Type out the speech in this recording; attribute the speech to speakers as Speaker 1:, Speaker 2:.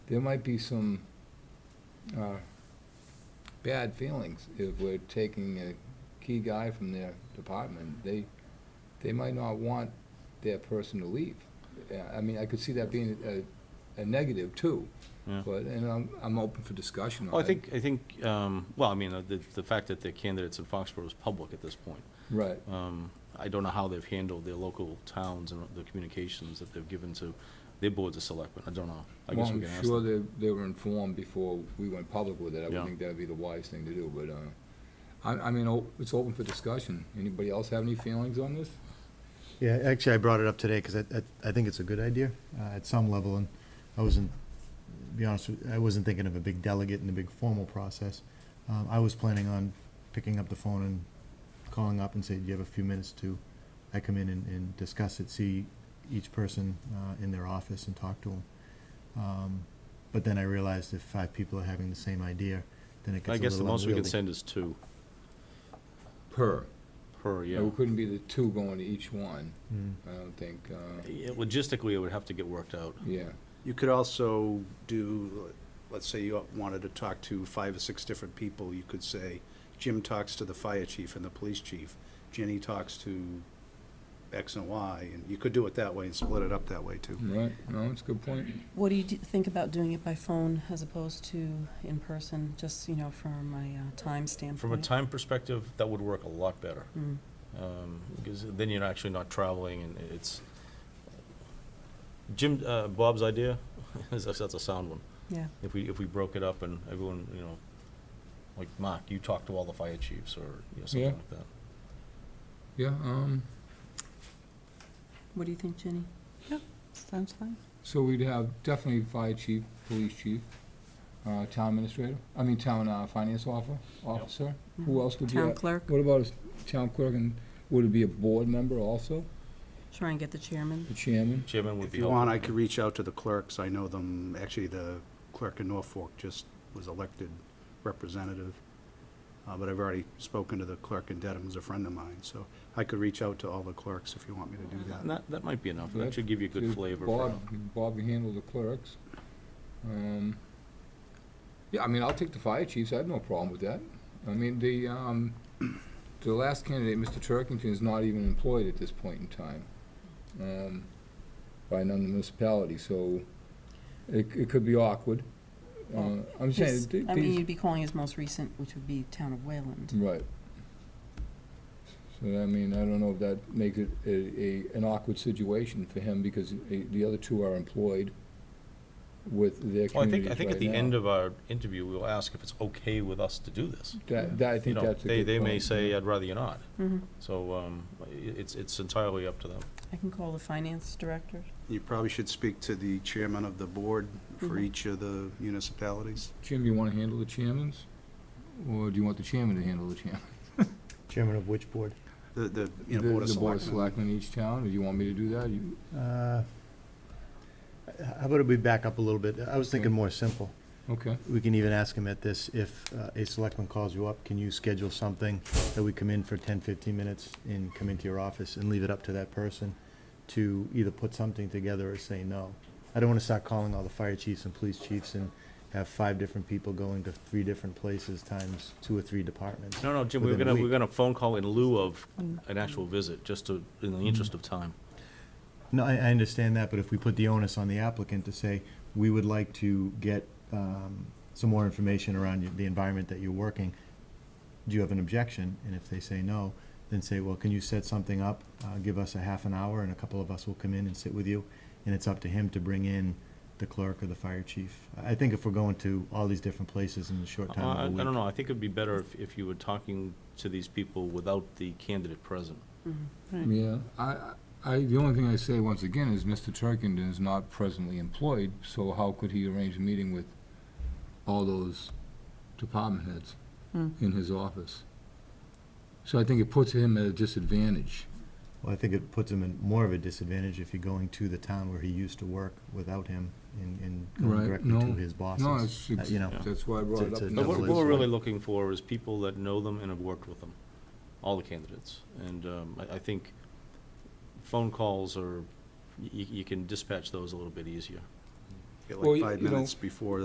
Speaker 1: there might be some uh, bad feelings if we're taking a key guy from their department. They, they might not want their person to leave. Yeah, I mean, I could see that being a- a, a negative too.
Speaker 2: Yeah.
Speaker 1: But, and I'm, I'm open for discussion on it.
Speaker 2: Well, Oh, I think, I think, um, well, I mean, uh, the, the fact that the candidates in Foxborough is public at this point.
Speaker 1: Right,
Speaker 2: Um, I don't know how they've handled their local towns and the communications that they've given to their boards of selectmen. I don't know. I
Speaker 1: well,
Speaker 2: guess we
Speaker 1: I'm
Speaker 2: can ask
Speaker 1: sure
Speaker 2: them.
Speaker 1: they, they were informed before we went public with it. I would
Speaker 2: Yeah.
Speaker 1: think that'd be the wise thing to do, but, uh, I, I mean, o- it's open for discussion. Anybody else have any feelings on this?
Speaker 3: Yeah, actually, I brought it up today because I, I- I think it's a good idea uh, at some level, and I wasn't, to be honest, with- I wasn't thinking of a big delegate and a big formal process. Um, I was planning on picking up the phone and calling up and say, do you have a few minutes to, I come in and, and discuss it, see each person uh, in their office and talk to them. Um, But then I realized if five people are having the same idea, then it gets a little
Speaker 2: I guess the most we can
Speaker 3: unwieldy.
Speaker 2: send is two
Speaker 1: Per.
Speaker 2: per, yeah.
Speaker 1: It couldn't be the two going to each one,
Speaker 3: Mm.
Speaker 1: I don't think, uh,
Speaker 2: Yeah, Logistically, it would have to get worked out.
Speaker 1: yeah.
Speaker 4: You could also do, let's say you wanted to talk to five or six different people, you could say, Jim talks to the fire chief and the police chief, Jenny talks to X and Y, and you could do it that way and split it up that way
Speaker 2: Hmm.
Speaker 4: too.
Speaker 1: Right, no, it's a good point.
Speaker 5: What do you d- think about doing it by phone as opposed to in person, just, you know, from a uh, time standpoint?
Speaker 2: From a time perspective, that would work a lot better.
Speaker 5: Mm.
Speaker 2: um, because then you're actually not traveling, and it's, Jim, uh, Bob's idea, is- that's a sound one.
Speaker 5: Yeah,
Speaker 2: If we, if we broke it up and everyone, you know, like, Mark, you talk to all the fire chiefs, or, you know, something
Speaker 1: Yeah.
Speaker 2: like that.
Speaker 1: Yeah, um,
Speaker 5: what do you think, Jenny? Yeah, sounds fine.
Speaker 1: so we'd have definitely fire chief, police chief, uh, town administrator, I mean, town, uh, finance officer, officer. Who else would be?
Speaker 5: Mm-hmm. Town
Speaker 1: at-
Speaker 5: clerk,
Speaker 1: What about a town clerk, and would it be a board member also,
Speaker 5: try and get the chairman.
Speaker 1: the chairman?
Speaker 2: Chairman would
Speaker 4: If
Speaker 2: be
Speaker 4: you
Speaker 2: helpful.
Speaker 4: want, I could reach out to the clerks, I know them, actually, the clerk in Norfolk just was elected representative, uh, but I've already spoken to the clerk in Dedham, who's a friend of mine, so I could reach out to all the clerks if you want me to do that.
Speaker 2: And That, that might be enough,
Speaker 1: That-
Speaker 2: that should give you a good
Speaker 1: Did
Speaker 2: flavor. for
Speaker 1: Bob,
Speaker 2: how-
Speaker 1: Bob can handle the clerks. Um, Yeah, I mean, I'll take the fire chiefs, I have no problem with that. I mean, the, um, the last candidate, Mr. Turkington, is not even employed at this point in time, um, by another municipality, so it, it could be awkward. Uh, I'm saying,
Speaker 5: His-
Speaker 1: th-
Speaker 5: I mean,
Speaker 1: these,
Speaker 5: you'd be calling his most recent, which would be town of Wayland.
Speaker 1: right. So, I mean, I don't know if that makes it a, a, an awkward situation for him, because the, the other two are employed with their communities
Speaker 2: Well, I think, I think at
Speaker 1: right
Speaker 2: the
Speaker 1: now.
Speaker 2: end of our interview, we'll ask if it's okay with us to do this.
Speaker 1: That, that, I
Speaker 2: You
Speaker 1: think
Speaker 2: know,
Speaker 1: that's a good
Speaker 2: they,
Speaker 1: point.
Speaker 2: they may say,
Speaker 1: yeah.
Speaker 2: I'd rather you not,
Speaker 1: Mm-hmm.
Speaker 5: Mhm.
Speaker 2: so, um, i- it's, it's entirely up to them.
Speaker 5: I can call the finance director.
Speaker 4: You probably should speak to the chairman of the board
Speaker 1: Mm-hmm.
Speaker 4: for
Speaker 5: Mhm.
Speaker 4: each of the municipalities.
Speaker 1: Jim, you wanna handle the chairmans, or do you want the chairman to handle the chairman?
Speaker 3: Chairman of which board?
Speaker 4: The, the, you know, Board of
Speaker 1: The board of
Speaker 4: Selectmen.
Speaker 1: selectmen in each town, or do you want me to do that? You-
Speaker 3: Uh, How about if we back up a little bit? I was thinking more simple.
Speaker 1: Okay,
Speaker 3: We can even ask him at this, if uh, a selectman calls you up, can you schedule something that we come in for 10, 15 minutes and come into your office and leave it up to that person to either put something together or say no? I don't want to start calling all the fire chiefs and police chiefs and have five different people going to three different places times two or three departments.
Speaker 2: No, no, Jim, we we're
Speaker 3: within a
Speaker 2: gonna, we we're
Speaker 3: week.
Speaker 2: gonna phone call in lieu of
Speaker 5: Mm.
Speaker 2: an actual visit, just to, in the interest of time.
Speaker 3: No, I, I understand that, but if we put the onus on the applicant to say, we would like to get, um, some more information around your- the environment that you're working, do you have an objection? And if they say no, then say, well, can you set something up, uh, give us a half an hour and a couple of us will come in and sit with you? And it's up to him to bring in the clerk or the fire chief. I I think if we're going to all these different places in a short
Speaker 2: Uh, I I
Speaker 3: time of a
Speaker 2: don't
Speaker 3: week.
Speaker 2: know, I think it'd be better if, if you were talking to these people without the candidate present.
Speaker 5: Mhm.
Speaker 1: yeah, I, I, the only thing I say once again is Mr. Turkington is not presently employed, so how could he arrange a meeting with all those department heads
Speaker 5: Hmm.
Speaker 1: in his office? So I think it puts him at a disadvantage.
Speaker 3: Well, I think it puts him in more of a disadvantage if you're going to the town where he used to work without him and, and
Speaker 1: Right,
Speaker 3: going directly
Speaker 1: no.
Speaker 3: to his bosses.
Speaker 1: No, it's,
Speaker 3: Uh, you know.
Speaker 1: it's- that's why I brought it
Speaker 3: It's-
Speaker 1: up.
Speaker 3: it's-
Speaker 2: But what
Speaker 3: Double
Speaker 2: what
Speaker 3: edged
Speaker 2: we're really
Speaker 3: sword.
Speaker 2: looking for is people that know them and have worked with them, all the candidates. And um, I, I think phone calls are, you, you can dispatch those a little bit easier.
Speaker 4: get
Speaker 1: Well,
Speaker 4: like
Speaker 1: you-
Speaker 4: five
Speaker 1: you know-
Speaker 4: minutes before